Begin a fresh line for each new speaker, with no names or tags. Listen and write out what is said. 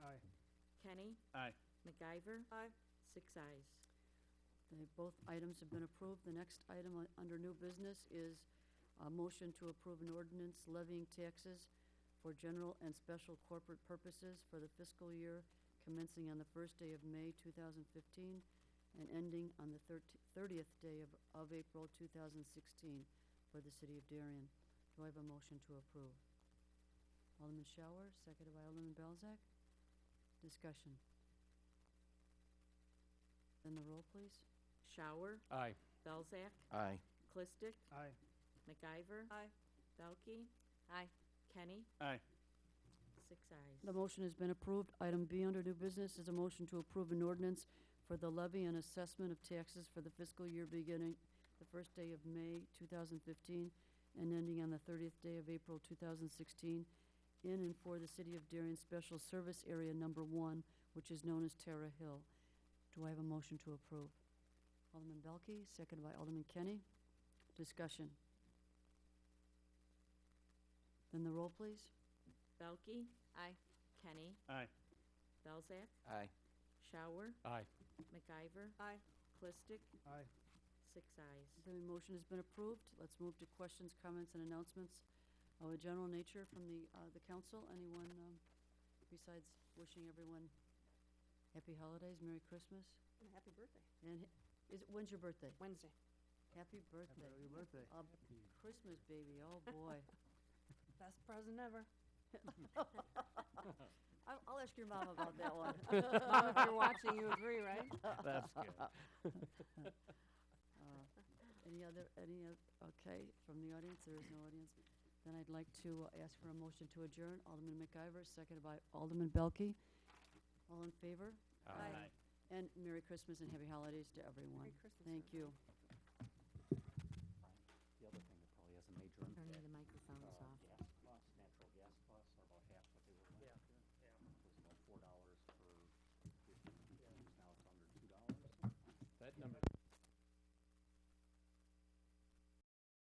Kenny?
Aye.
MacIver?
Aye.
Six eyes.
The- Both items have been approved. The next item on- under new business is a motion to approve an ordinance levying taxes for general and special corporate purposes for the fiscal year commencing on the first day of May 2015 and ending on the thirt- 30th day of- of April 2016 for the city of Darien. Do I have a motion to approve? Alderman Shower, seconded by Alderman Belzak. Discussion. Then the roll, please.
Shower?
Aye.
Belzak?
Aye.
Clistic?
Aye.
MacIver?
Aye.
Belkey?
Aye.
Kenny?
Aye.
Six eyes.
The motion has been approved. Item B under new business is a motion to approve an ordinance for the levy and assessment of taxes for the fiscal year beginning the first day of May 2015 and ending on the 30th day of April 2016 in and for the City of Darien Special Service Area Number One, which is known as Terra Hill. Do I have a motion to approve? Alderman Belke, seconded by Alderman Kenny. Discussion. Then the roll, please.
Belkey?
Aye.
Kenny?
Aye.
Belzak?
Aye.
Shower?
Aye.
MacIver?
Aye.
Clistic?
Aye.
Six eyes.
The motion has been approved. Let's move to questions, comments, and announcements of a general nature from the, uh, the council. Anyone, um, besides wishing everyone happy holidays, Merry Christmas,
And a happy birthday.
and is, when's your birthday?
Wednesday.
Happy birthday.
early birthday.
Uh, Christmas, baby, oh, boy.
Best present ever.
I'll, I'll ask your mom about that one.
If you're watching, you agree, right?
That's good.
Uh, Any other, any, oth- okay, from the audience, there is no audience. Then I'd like to uh, ask for a motion to adjourn. Alderman McIver, seconded by Alderman Belke. All in favor?
Aye.
And Merry Christmas and Happy Holidays to everyone.
Christmas,
Thank
everyone.
you.
The other thing that probably has a major impact. uh,
Turn the microphones off.
Yeah.